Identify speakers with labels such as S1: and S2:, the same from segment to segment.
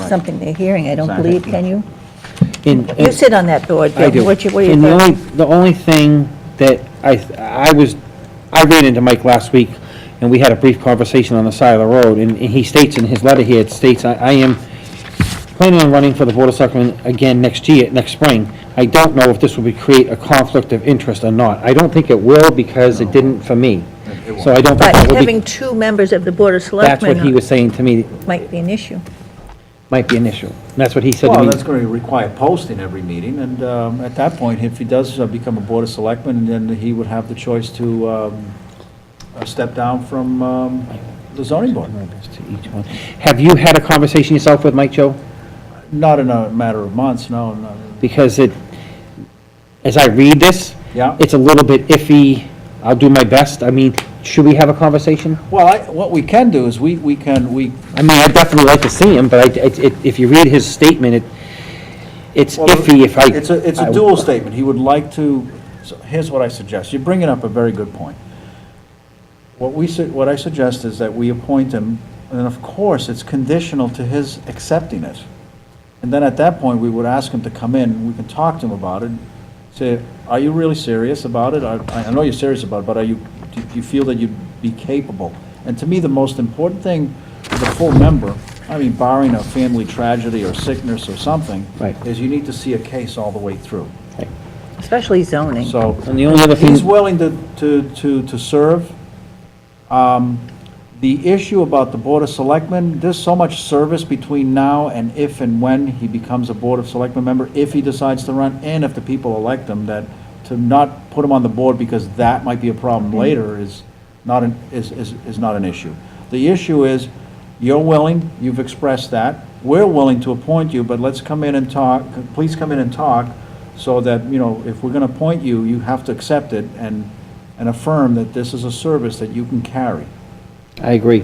S1: something they're hearing, I don't
S2: Exactly.
S1: believe, can you?
S3: And-
S1: You
S3: and-
S1: sit on that board,
S3: I do.
S1: What you- what do you
S3: And the only,
S1: think?
S3: the only thing that I, I was, I ran into Mike last week, and we had a brief conversation on the side of the road, and and he states in his letter here, it states, I, I am planning on running for the Board of Selectmen again next year, next spring. I don't know if this will be, create a conflict of interest or not. I don't think it will, because it didn't for me.
S2: It won't.
S3: So I don't think
S1: But
S3: it will
S1: having
S3: be,
S1: two members of the Board of
S3: that's what he
S1: Selectmen
S3: was saying to me,
S1: might be an issue.
S3: might be an issue. And that's what he said to me.
S2: Well, that's going to require posting every meeting, and um, at that point, if he does uh, become a Board of Selectman, then he would have the choice to um, uh, step down from um, the zoning board.
S3: To each one. Have you had a conversation yourself with Mike, Joe?
S2: Not in a matter of months, no, not
S3: Because it, as I read this,
S2: Yeah.
S3: it's a little bit iffy. I'll do my best. I mean, should we have a conversation?
S2: Well, I- what we can do is, we we can, we,
S3: I mean, I'd definitely like to see him, but I, it- it- if you read his statement, it, it's
S2: Well,
S3: iffy if I.
S2: It's a, it's
S3: I-
S2: a dual statement. He would like to, so here's what I suggest. You're bringing up a very good point. What we, su- what I suggest is that we appoint him, and of course, it's conditional to his accepting it. And then at that point, we would ask him to come in, we can talk to him about it, say, are you really serious about it? I, I know you're serious about it, but are you, do you feel that you'd be capable? And to me, the most important thing as a full member, I mean barring a family tragedy or sickness or something,
S3: Right.
S2: is you need to see a case all the way through.
S1: Especially zoning.
S2: So,
S3: And the only other thing-
S2: he's willing to, to, to, to serve. Um, The issue about the Board of Selectmen, there's so much service between now and if and when he becomes a Board of Selectmen member, if he decides to run, and if the people elect him, that to not put him on the board because that might be a problem later is not, an is, is, is not an issue. The issue is, you're willing, you've expressed that, we're willing to appoint you, but let's come in and talk, please come in and talk, so that, you know, if we're gonna appoint you, you have to accept it and, and affirm that this is a service that you can carry.
S3: I agree.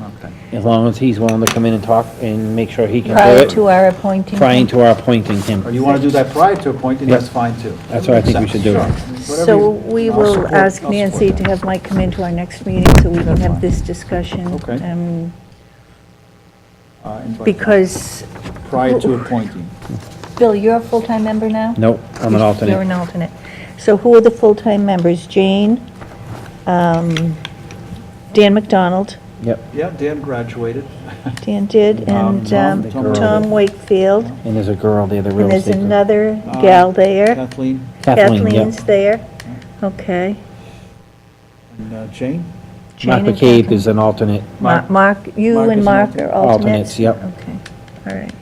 S2: Okay.
S3: As long as he's willing to come in and talk and make sure he can
S1: Prior
S3: do
S1: to
S3: it.
S1: our appointing.
S3: Prior to our appointing him.
S2: Or Oh, you wanna do that prior to appointing, that's fine too.
S3: That's what I think we should do.
S2: Sure. Whatever
S1: So
S2: you-
S1: we
S2: I'll
S1: will
S2: support-
S1: ask
S2: I'll support
S1: Nancy
S2: that.
S1: to have Mike come into our next meeting so we can
S2: That's
S1: have
S2: fine.
S1: this discussion.
S2: Okay.
S1: um,
S2: Uh, invite-
S1: Because,
S2: Prior to appointing.
S1: Bill, you're a full-time member now?
S3: Nope, I'm an
S1: You're an
S3: alternate.
S1: alternate. So who are the full-time members? Jane, um, Dan McDonald,
S3: Yep,
S2: Yeah, Dan graduated.
S1: Dan did,
S2: Um,
S1: and um,
S2: Tom- Tom-
S1: Tom Wakefield,
S3: and there's a girl there, the real
S1: and
S3: estate.
S1: there's
S3: girl.
S1: another gal there.
S2: Uh, Kathleen
S3: Kathleen, yep.
S1: Kathleen's there, okay.
S2: and uh, Jane.
S1: Jane
S3: Mark
S1: and
S3: McCabe
S1: Kathleen.
S3: is an alternate.
S1: Ma-
S2: Mark.
S1: Mark, you
S2: Mark
S1: and
S2: is an
S1: Mark
S2: alternate.
S1: are alternates?
S3: Alternates, yep.
S1: Okay, all right.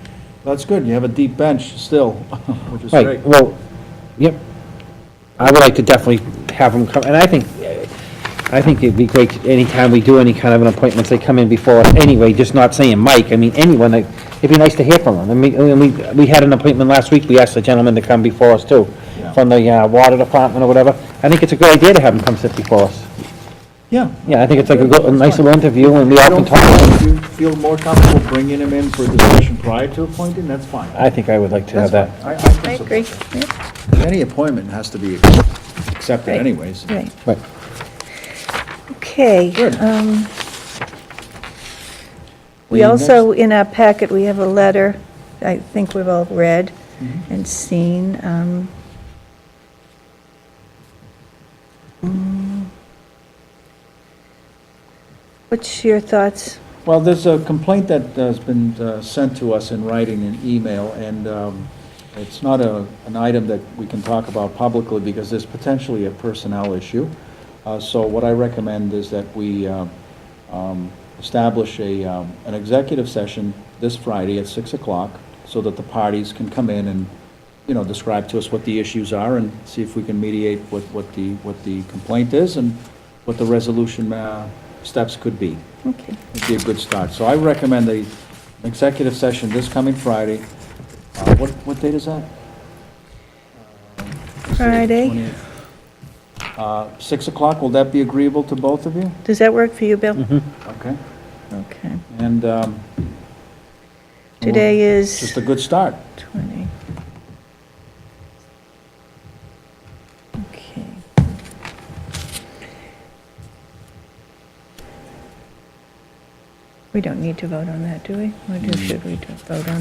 S2: That's good, you have a deep bench still, which is
S3: Right,
S2: great.
S3: well, yep. I would like to definitely have them come, and I think, I think it'd be great, anytime we do any kind of an appointment, they come in before us anyway, just not saying Mike, I mean, anyone, like, it'd be nice to hear from them. I mean, and we, we had an appointment last week, we asked the gentleman to come before us too,
S2: Yeah.
S3: from the uh, water department or whatever. I think it's a good idea to have them come sit before us.
S2: Yeah.
S3: Yeah, I think it's like a good, a nice little interview, and we
S2: I
S3: often
S2: don't
S3: talk.
S2: feel, you feel more comfortable bringing him in for a discussion prior to appointing, that's fine.
S3: I think I would like to have that.
S2: That's fine. I- can
S1: I
S2: support
S1: agree, yeah.
S2: that. Any appointment has to be accepted
S1: Right.
S2: anyways.
S1: Right,
S3: Right.
S1: okay.
S2: Good.
S1: um, We
S2: The
S1: also, in our packet, we have a letter I think we've all read
S2: Mm-hmm.
S1: and seen. um, mm. What's your thoughts?
S2: Well, there's a complaint that has been uh, sent to us in writing and email, and um, it's not a, an item that we can talk about publicly because there's potentially a personnel issue. Uh, So what I recommend is that we uh, um, establish a, um, an executive session this Friday at 6 o'clock so that the parties can come in and, you know, describe to us what the issues are and see if we can mediate what, what the, what the complaint is and what the resolution uh, steps could be
S1: Okay.
S2: would be a good start. So I recommend a executive session this coming Friday. Uh, What, what date is that?
S1: Friday,
S2: 28th. Uh, 6 o'clock, will that be agreeable to both of you?
S1: does that work for you, Bill?
S2: Mm-hmm. Okay.
S1: Okay.
S2: And um,
S1: Today
S2: just
S1: is
S2: a good start.
S1: 20. Okay.
S2: Mm.
S1: We don't need to vote on that, do we? Or do- should we do- vote on